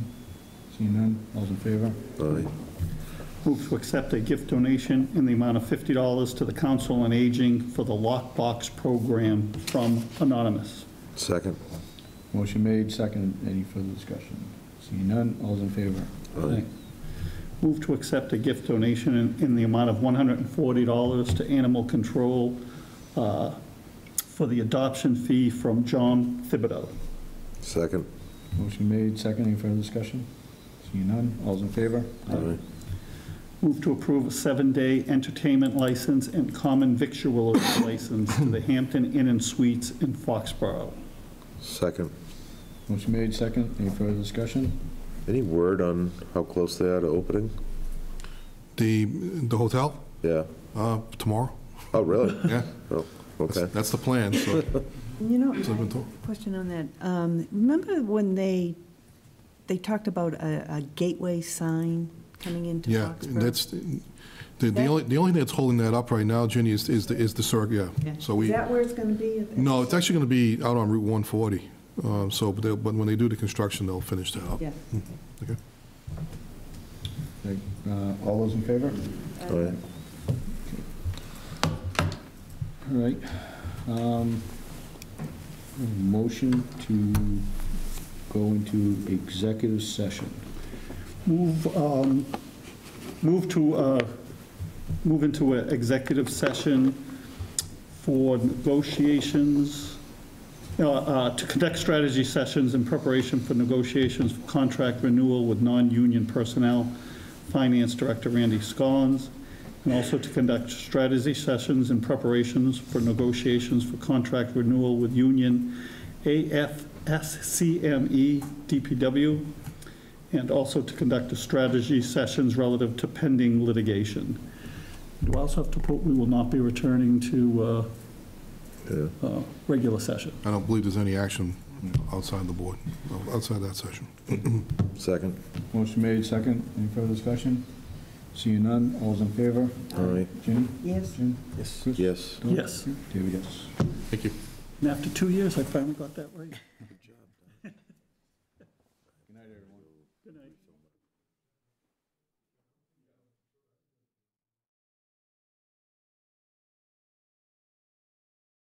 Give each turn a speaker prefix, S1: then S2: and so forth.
S1: Seeing none, all's in favor?
S2: Aye.
S3: Move to accept a gift donation in the amount of $50 to the Council on Aging for the Lockbox Program from Anonymous.
S2: Second.
S1: Motion made, second, any further discussion? Seeing none, all's in favor?
S2: Aye.
S3: Move to accept a gift donation in- in the amount of $140 to Animal Control uh, for the adoption fee from John Thibodeau.
S2: Second.
S1: Motion made, second, any further discussion? Seeing none, all's in favor?
S2: Aye.
S3: Move to approve a seven-day entertainment license and common victualler license to the Hampton Inn and Suites in Foxborough.
S2: Second.
S1: Motion made, second, any further discussion?
S2: Any word on how close they are to opening?
S4: The, the hotel,
S2: Yeah.
S4: uh, tomorrow,
S2: Oh, really?
S4: yeah.
S2: Oh,
S4: That's-
S2: okay.
S4: That's the plan, so,
S5: You know,
S4: so I've been told.
S5: question on that. Um, Remember when they, they talked about a a gateway sign coming into
S4: yeah,
S5: Foxborough?
S4: that's, the, the only, the only thing that's holding that up right now, Ginny, is, is the, is the circuit, yeah.
S5: Yeah.
S4: So
S5: Is
S4: we,
S5: that where it's going to be?
S4: no, it's actually gonna be out on Route 140, uh, so, but they'll- but when they do the construction, they'll finish that up. Hmm.
S5: Yeah.
S4: Okay.
S1: Okay, uh, All those in favor?
S2: Aye.
S1: All right. um, Motion to go into executive session.
S3: Move, um, move to, uh, move into an executive session for negotiations, uh, uh, to conduct strategy sessions in preparation for negotiations for contract renewal with non-union personnel, Finance Director Randy Scollins, and also to conduct strategy sessions in preparations for negotiations for contract renewal with union AFSCME DPW, and also to conduct a strategy sessions relative to pending litigation. Do I also have to put, we will not be returning to
S2: Yeah.
S3: uh, uh, regular session?
S4: I don't believe there's any action outside the board, outside that session.
S2: Second.
S1: Motion made, second, any further discussion? Seeing none, all's in favor?
S2: Aye.
S1: Jim?
S5: Yes.
S1: Jim?
S2: Yes.
S1: Chris?
S2: Yes.
S1: Don?
S3: Yes.
S1: David, yes.
S4: Thank you.
S3: And after two years, I finally got that right.
S1: Good night, everyone.